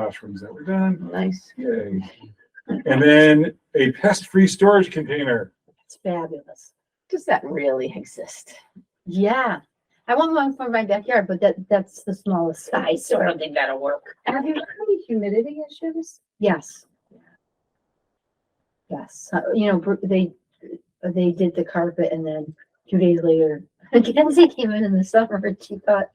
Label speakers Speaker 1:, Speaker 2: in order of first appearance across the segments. Speaker 1: classrooms that were done.
Speaker 2: Nice.
Speaker 1: Yay. And then a pest-free storage container.
Speaker 2: It's fabulous. Does that really exist? Yeah. I want one for my backyard, but that, that's the smallest size, so I don't think that'll work.
Speaker 3: Have you heard of humidity issues?
Speaker 2: Yes. Yes, uh, you know, br- they, they did the carpet and then two days later, Mackenzie came in in the summer and she thought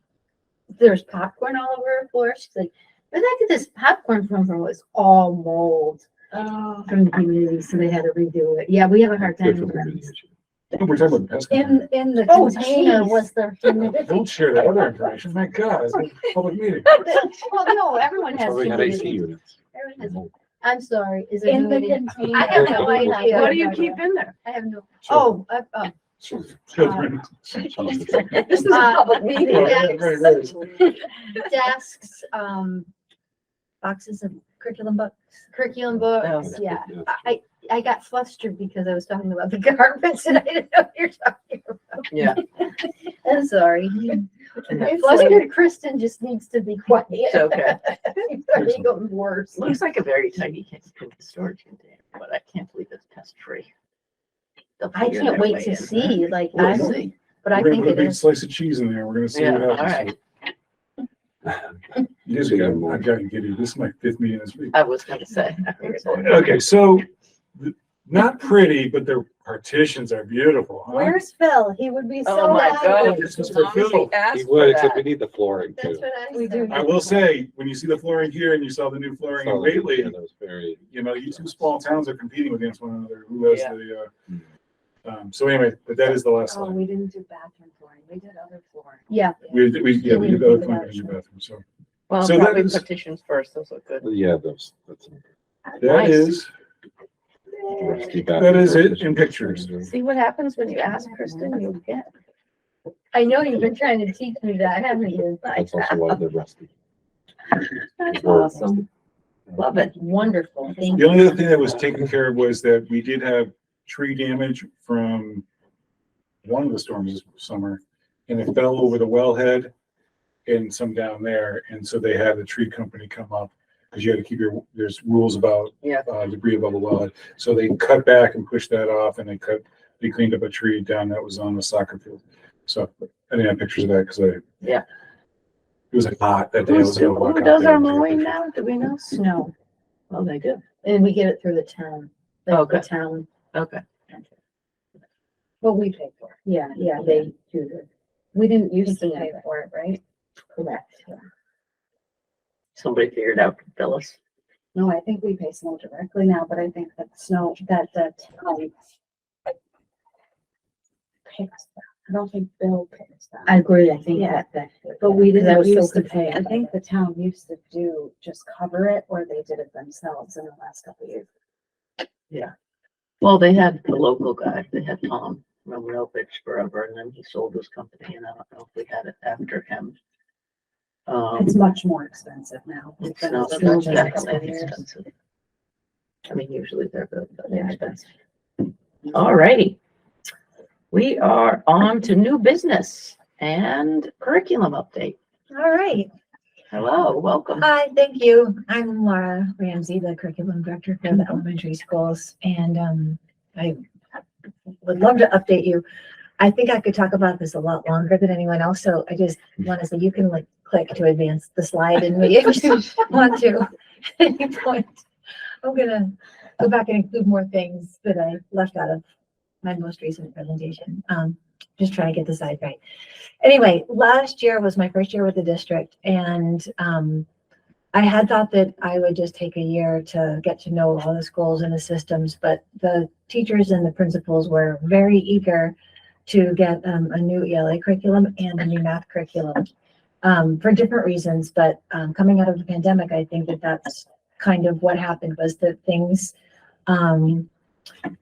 Speaker 2: there's popcorn all over her floor. She's like, where did I get this popcorn from? From was all mold
Speaker 3: Oh.
Speaker 2: from the community, so they had to redo it. Yeah, we have a hard time. with that.
Speaker 1: We're talking about pest. control.
Speaker 3: In, in the
Speaker 2: Oh, Tina
Speaker 3: container was,
Speaker 2: was the
Speaker 1: Don't share that other information. My God, it's a public meeting.
Speaker 2: Well, no, everyone has.
Speaker 4: Probably had AC
Speaker 2: humidity.
Speaker 4: units.
Speaker 2: Everyone has- I'm sorry, is it
Speaker 3: in the
Speaker 2: humidity?
Speaker 3: container.
Speaker 2: I have no idea.
Speaker 5: What do you keep in there?
Speaker 2: I have no, oh,
Speaker 1: Children-
Speaker 2: uh, uh,
Speaker 1: children.
Speaker 3: This is a
Speaker 2: Uh,
Speaker 3: public meeting.
Speaker 1: Right, right, right.
Speaker 2: desks, um, boxes of curriculum books, curriculum books, yeah. I, I I got flustered because I was talking about the garments and I didn't know what you're talking about.
Speaker 6: Yeah.
Speaker 2: I'm sorry.
Speaker 3: It's like-
Speaker 2: Flustered Kristen just needs to be quiet.
Speaker 6: It's okay.
Speaker 2: She's already gotten worse.
Speaker 6: Looks like a very tiny con- con- storage container, but I can't believe it's pest free.
Speaker 2: I can't wait to see, like, I,
Speaker 6: We'll see.
Speaker 2: but I
Speaker 1: We're gonna
Speaker 2: think
Speaker 1: put a
Speaker 2: it
Speaker 1: big
Speaker 2: is,
Speaker 1: slice of cheese in there. We're gonna see
Speaker 6: Yeah,
Speaker 1: what
Speaker 6: all
Speaker 1: happens.
Speaker 6: right.
Speaker 1: You guys got, I gotta get you. This is my fifth meeting this week.
Speaker 6: I was gonna say. I figured that-
Speaker 1: Okay, so th- not pretty, but their partitions are beautiful, huh?
Speaker 2: where's Phil? He would be
Speaker 6: Oh
Speaker 2: so
Speaker 6: my
Speaker 2: happy.
Speaker 6: God.
Speaker 1: This is for Phil.
Speaker 4: He would, except we need the flooring
Speaker 2: That's
Speaker 4: too.
Speaker 2: what I
Speaker 3: We
Speaker 2: said.
Speaker 3: do.
Speaker 1: I will say, when you see the flooring here and you saw the new flooring in
Speaker 4: Solid, yeah,
Speaker 1: Whately,
Speaker 4: That was very,
Speaker 1: you know, you two small towns are competing against one another. Who has
Speaker 6: Yeah.
Speaker 1: the, uh, um, so anyway, but that is the last
Speaker 3: Oh,
Speaker 1: slide.
Speaker 3: we didn't do bathroom flooring. We did other flooring.
Speaker 2: Yeah,
Speaker 1: We, we,
Speaker 2: Yeah,
Speaker 1: yeah, we did go
Speaker 2: we
Speaker 1: to
Speaker 2: did
Speaker 1: the
Speaker 2: that,
Speaker 1: other
Speaker 2: sure.
Speaker 1: bathroom, so.
Speaker 6: Well,
Speaker 1: So that
Speaker 6: probably
Speaker 1: is-
Speaker 6: petitions first, those look good.
Speaker 4: yeah, that's, that's.
Speaker 1: That
Speaker 6: Nice.
Speaker 1: is, that is it in pictures.
Speaker 5: See what happens when you ask Kristen, you'll get.
Speaker 2: I know you've been trying to teach me that, haven't you?
Speaker 4: That's also why they're rusty.
Speaker 3: That's
Speaker 4: Or-
Speaker 3: awesome.
Speaker 2: Love it. Wonderful. Thank
Speaker 1: The
Speaker 2: you.
Speaker 1: only other thing that was taken care of was that we did have tree damage from one of the storms this summer, and it fell over the wellhead and some down there, and so they had the tree company come up, because you had to keep your, there's rules about
Speaker 6: Yeah.
Speaker 1: uh, debris above the wellhead, so they cut back and pushed that off, and they cut, they cleaned up a tree down that was on the soccer field. So, I didn't have pictures of that, because I.
Speaker 6: Yeah.
Speaker 1: It was like hot that day. I
Speaker 5: Who's-
Speaker 1: was gonna walk
Speaker 5: Who
Speaker 1: out
Speaker 5: does
Speaker 1: there
Speaker 5: our
Speaker 1: and take a
Speaker 5: mowing
Speaker 1: picture.
Speaker 5: now? Do we know?
Speaker 2: Snow,
Speaker 6: Well, they do.
Speaker 2: and we get it through the town, like the
Speaker 6: Okay.
Speaker 2: town,
Speaker 6: Okay.
Speaker 2: what we pay for. Yeah, yeah, they do the,
Speaker 3: We didn't used to
Speaker 2: Yeah.
Speaker 3: pay for it, right?
Speaker 2: correct. yeah.
Speaker 6: Somebody figured out Phyllis.
Speaker 3: No, I think we pay snow directly now, but I think that snow, that, that. town pays that. I don't think Bill pays that.
Speaker 2: I agree, I think
Speaker 3: Yeah.
Speaker 2: that, that.
Speaker 3: But we
Speaker 2: because I
Speaker 3: didn't
Speaker 2: was so
Speaker 3: used to pay, I
Speaker 2: confused.
Speaker 3: think the town used to do, just cover it, or they did it themselves in the last couple of years.
Speaker 6: Well, they had the local guy, they had Tom Romanovich forever, and then he sold his company, and I don't know if we had it after him. Um,
Speaker 3: It's much more expensive now.
Speaker 6: it's
Speaker 3: than
Speaker 6: not,
Speaker 3: it's been
Speaker 6: it's
Speaker 3: the last couple of
Speaker 6: definitely
Speaker 3: years.
Speaker 6: expensive. I mean, usually they're good, but
Speaker 3: Yeah.
Speaker 6: they're expensive. All righty. We are on to new business and curriculum update.
Speaker 7: All right.
Speaker 6: Hello, welcome.
Speaker 7: Hi, thank you. I'm Laura Ramsey, the curriculum director for the elementary schools, and um, I would love to update you. I think I could talk about this a lot longer than anyone else, so I just want to say you can like click to advance the slide and me if you want to at any point. I'm gonna go back and include more things that I left out of my most recent presentation. Um, just trying to get the side right. Anyway, last year was my first year with the district and um, I had thought that I would just take a year to get to know all the schools and the systems, but the teachers and the principals were very eager to get um, a new ELA curriculum and a new math curriculum um, for different reasons. But um, coming out of the pandemic, I think that that's kind of what happened was that things um,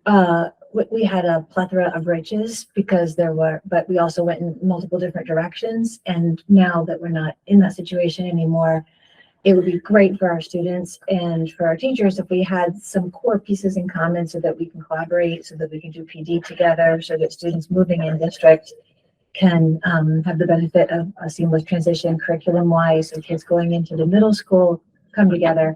Speaker 7: uh, we, we had a plethora of riches because there were, but we also went in multiple different directions. And now that we're not in that situation anymore, it would be great for our students and for our teachers if we had some core pieces in common so that we can collaborate, so that we can do PD together, so that students moving in district can um, have the benefit of a seamless transition curriculum wise. So kids going into the middle school
Speaker 3: come together